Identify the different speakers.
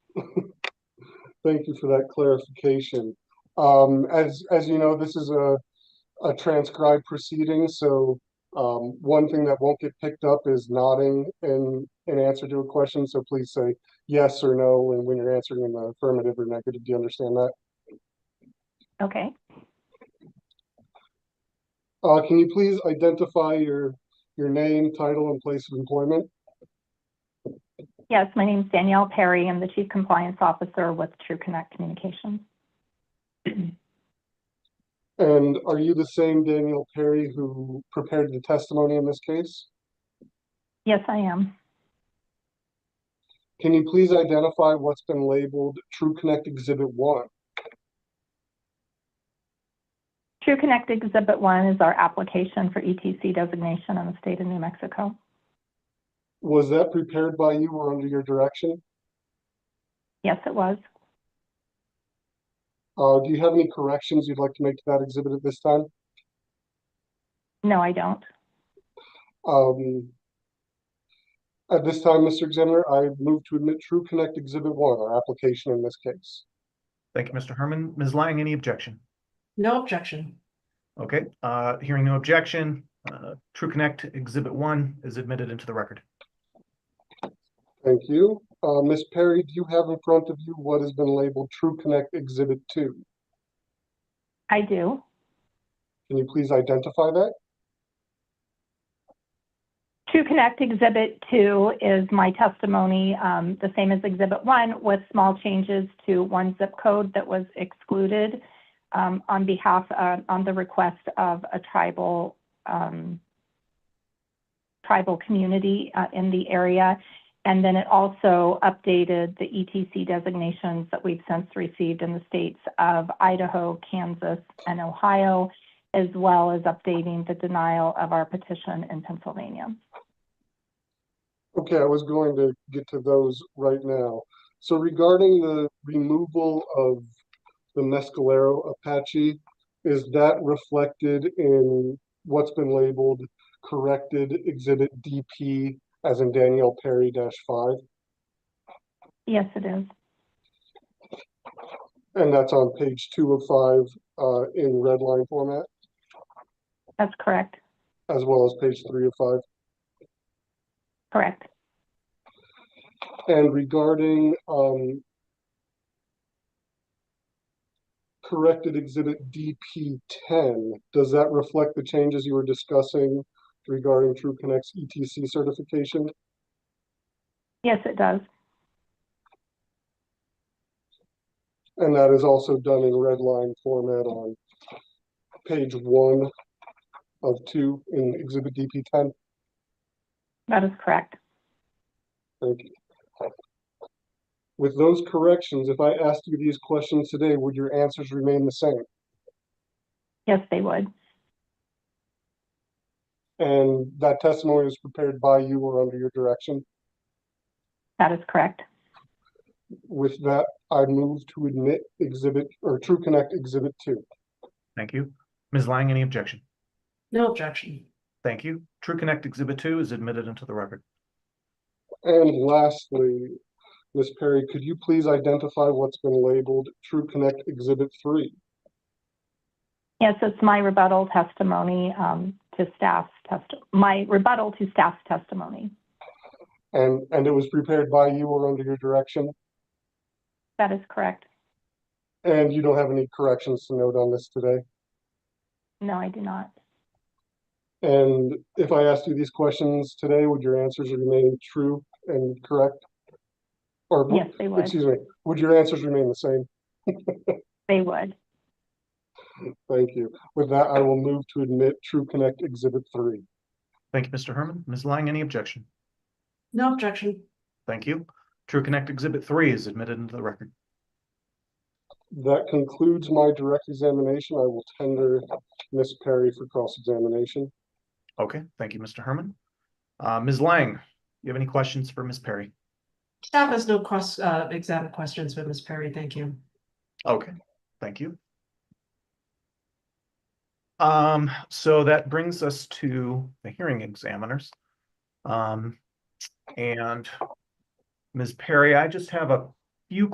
Speaker 1: Thank you for that clarification. Um, as, as you know, this is a, a transcribed proceeding, so, um, one thing that won't get picked up is nodding in, in answer to a question, so please say yes or no, and when you're answering in the affirmative or negative, do you understand that?
Speaker 2: Okay.
Speaker 1: Uh, can you please identify your, your name, title, and place of employment?
Speaker 2: Yes, my name's Danielle Perry. I'm the Chief Compliance Officer with True Connect Communications.
Speaker 1: And are you the same Daniel Perry who prepared the testimony in this case?
Speaker 2: Yes, I am.
Speaker 1: Can you please identify what's been labeled True Connect Exhibit One?
Speaker 2: True Connect Exhibit 1 is our application for ETC designation in the state of New Mexico.
Speaker 1: Was that prepared by you or under your direction?
Speaker 2: Yes, it was.
Speaker 1: Uh, do you have any corrections you'd like to make to that exhibit at this time?
Speaker 2: No, I don't.
Speaker 1: Um, at this time, Mr. Examiner, I move to admit True Connect Exhibit One, our application in this case.
Speaker 3: Thank you, Mr. Herman. Ms. Lang, any objection?
Speaker 4: No objection.
Speaker 3: Okay, uh, hearing no objection, uh, True Connect Exhibit One is admitted into the record.
Speaker 1: Thank you. Uh, Ms. Perry, do you have in front of you what has been labeled True Connect Exhibit Two?
Speaker 2: I do.
Speaker 1: Can you please identify that?
Speaker 2: True Connect Exhibit 2 is my testimony, um, the same as Exhibit 1, with small changes to one zip code that was excluded um, on behalf, uh, on the request of a tribal, um, tribal community uh, in the area. And then it also updated the ETC designations that we've since received in the states of Idaho, Kansas, and Ohio, as well as updating the denial of our petition in Pennsylvania.
Speaker 1: Okay, I was going to get to those right now. So regarding the removal of the Mescalero Apache, is that reflected in what's been labeled corrected exhibit DP as in Danielle Perry dash five?
Speaker 2: Yes, it is.
Speaker 1: And that's on page two of five, uh, in red line format,
Speaker 2: That's correct.
Speaker 1: as well as page three of five.
Speaker 2: Correct.
Speaker 1: And regarding, um, corrected exhibit DP ten, does that reflect the changes you were discussing regarding True Connect's ETC certification?
Speaker 2: Yes, it does.
Speaker 1: And that is also done in red line format on page one of two in exhibit DP ten.
Speaker 2: That is correct.
Speaker 1: Thank you. With those corrections, if I asked you these questions today, would your answers remain the same?
Speaker 2: Yes, they would.
Speaker 1: And that testimony was prepared by you or under your direction?
Speaker 2: That is correct.
Speaker 1: With that, I move to admit exhibit or True Connect Exhibit Two.
Speaker 3: Thank you. Ms. Lang, any objection?
Speaker 4: No objection.
Speaker 3: Thank you. True Connect Exhibit Two is admitted into the record.
Speaker 1: And lastly, Ms. Perry, could you please identify what's been labeled True Connect Exhibit Three?
Speaker 2: Yes, it's my rebuttal testimony um, to staff's test, my rebuttal to staff's testimony.
Speaker 1: And, and it was prepared by you or under your direction?
Speaker 2: That is correct.
Speaker 1: And you don't have any corrections to note on this today?
Speaker 2: No, I do not.
Speaker 1: And if I asked you these questions today, would your answers remain true and correct? Or,
Speaker 2: Yes, they would.
Speaker 1: excuse me, would your answers remain the same?
Speaker 2: They would.
Speaker 1: Thank you. With that, I will move to admit True Connect Exhibit Three.
Speaker 3: Thank you, Mr. Herman. Ms. Lang, any objection?
Speaker 4: No objection.
Speaker 3: Thank you. True Connect Exhibit Three is admitted into the record.
Speaker 1: That concludes my direct examination. I will tender Miss Perry for cross-examination.
Speaker 3: Okay, thank you, Mr. Herman. Uh, Ms. Lang, you have any questions for Ms. Perry?
Speaker 4: Staff has no cross, uh, exam questions for Ms. Perry. Thank you.
Speaker 3: Okay, thank you. Um, so that brings us to the hearing examiners. Um, and Ms. Perry, I just have a